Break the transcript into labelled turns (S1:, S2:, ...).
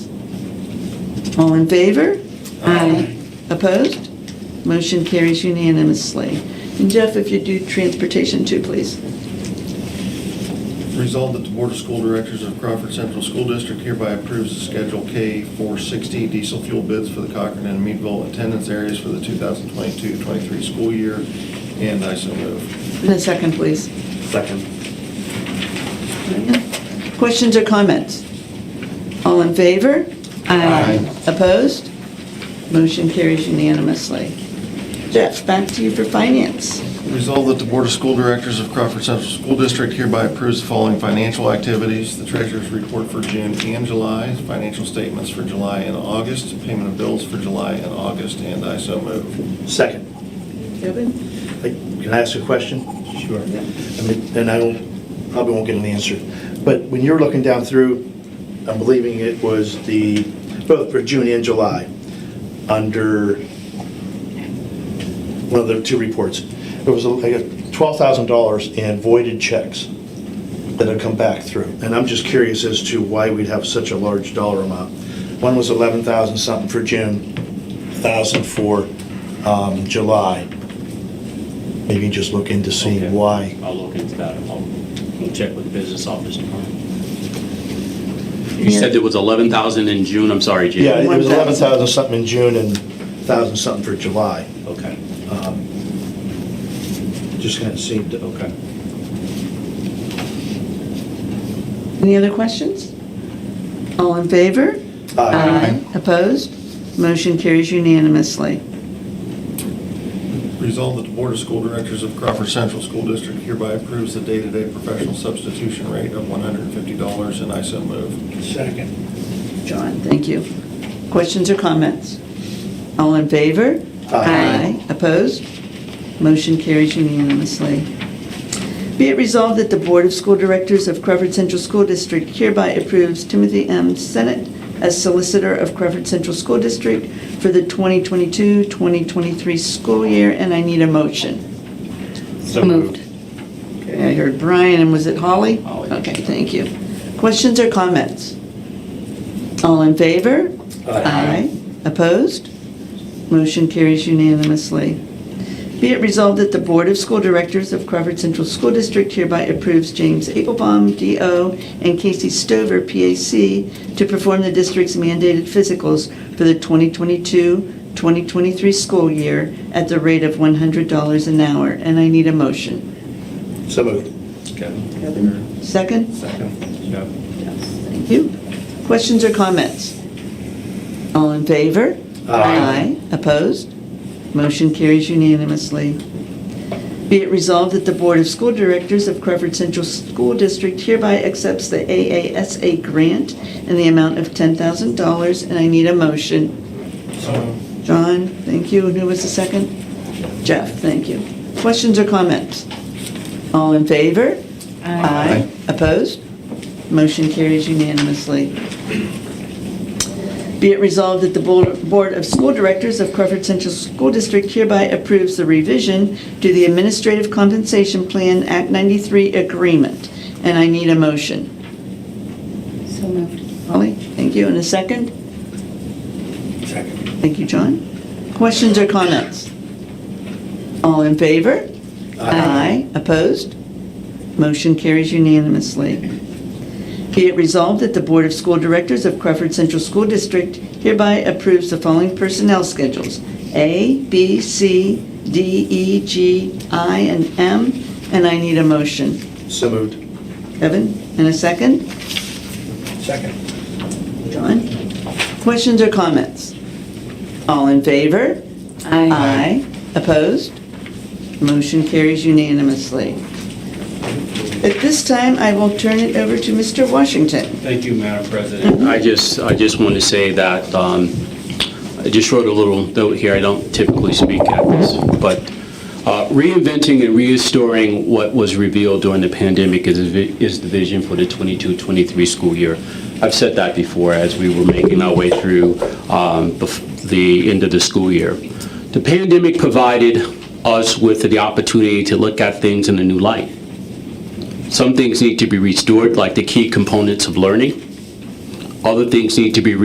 S1: All in favor? Aye. Opposed? Motion carries unanimously. And Jeff, if you do transportation too, please.
S2: Resolved that the Board of School Directors of Crawford Central School District hereby approves the Schedule K 460 diesel fuel bids for the Cochran and Meadville attendance areas for the 2022-23 school year, and I so move.
S1: And a second, please.
S3: Second.
S1: Questions or comments? All in favor? Aye. Opposed? Motion carries unanimously. Jeff, back to you for finance.
S2: Resolved that the Board of School Directors of Crawford Central School District hereby approves the following financial activities. The Treasurer's Report for June and July, financial statements for July and August, payment of bills for July and August, and I so move.
S3: Second.
S1: Kevin?
S3: Hey, Can I ask a question? Sure. I mean, and I don't, probably won't get an answer. But when you're looking down through, I'm believing it was the, both for June and July, under one of the two reports, there was like $12,000 in voided checks that had come back through. And I'm just curious as to why we'd have such a large dollar amount. One was 11,000 something for June, 1,000 for um, July. Maybe just look into
S4: Okay.
S3: seeing why.
S4: I'll look into that. I'll I'll check with the business office tomorrow.
S5: You said there was 11,000 in June, I'm sorry, Jim.
S3: Yeah, it was
S1: 1,000.
S3: 11,000 something in June and 1,000 something for July.
S4: Okay,
S3: Just kind of seemed, okay.
S1: Any other questions? All in favor?
S3: Aye.
S1: Opposed? Motion carries unanimously.
S2: Resolved that the Board of School Directors of Crawford Central School District hereby approves the day-to-day professional substitution rate of $150, and I so move.
S3: Second.
S1: John, thank you. Questions or comments? All in favor?
S3: Aye.
S1: Opposed? Motion carries unanimously. Be it resolved that the Board of School Directors of Crawford Central School District hereby approves Timothy M. Senate as Solicitor of Crawford Central School District for the 2022-2023 school year, and I need a motion.
S4: So moved.
S1: Okay, I heard Brian, and was it Holly?
S4: Holly.
S1: Okay, thank you. Questions or comments? All in favor? Aye. Opposed? Motion carries unanimously. Be it resolved that the Board of School Directors of Crawford Central School District hereby approves James Abelbaum, DO, and Casey Stover, PAC, to perform the district's mandated physicals for the 2022-2023 school year at the rate of $100 an hour, and I need a motion.
S3: So moved.
S2: Kevin?
S1: Second?
S2: Second.
S4: Yep.
S1: Thank you. Questions or comments? All in favor?
S3: Aye.
S1: Opposed? Motion carries unanimously. Be it resolved that the Board of School Directors of Crawford Central School District hereby accepts the AASA grant in the amount of $10,000, and I need a motion. John, thank you. And who was the second? Jeff, thank you. Questions or comments? All in favor? Aye. Opposed? Motion carries unanimously. Be it resolved that the Bo- Board of School Directors of Crawford Central School District hereby approves the revision to the Administrative Compensation Plan Act 93 agreement, and I need a motion.
S6: So moved.
S1: Holly, thank you, and a second?
S3: Second.
S1: Thank you, John. Questions or comments? All in favor? Aye. Opposed? Motion carries unanimously. Be it resolved that the Board of School Directors of Crawford Central School District hereby approves the following personnel schedules: A, B, C, D, E, G, I, and M, and I need a motion.
S3: So moved.
S1: Evan, and a second?
S3: Second.
S1: John? Questions or comments? All in favor? Aye. Opposed? Motion carries unanimously. At this time, I will turn it over to Mr. Washington.
S4: Thank you, Madam President.
S5: I just, I just wanted to say that, um, I just wrote a little note here, I don't typically speak at this, but uh, reinventing and restoring what was revealed during the pandemic is, is the vision for the 22-23 school year. I've said that before as we were making our way through um, the f- the end of the school year. The pandemic provided us with the opportunity to look at things in a new light. Some things need to be restored, like the key components of learning. Other things need to be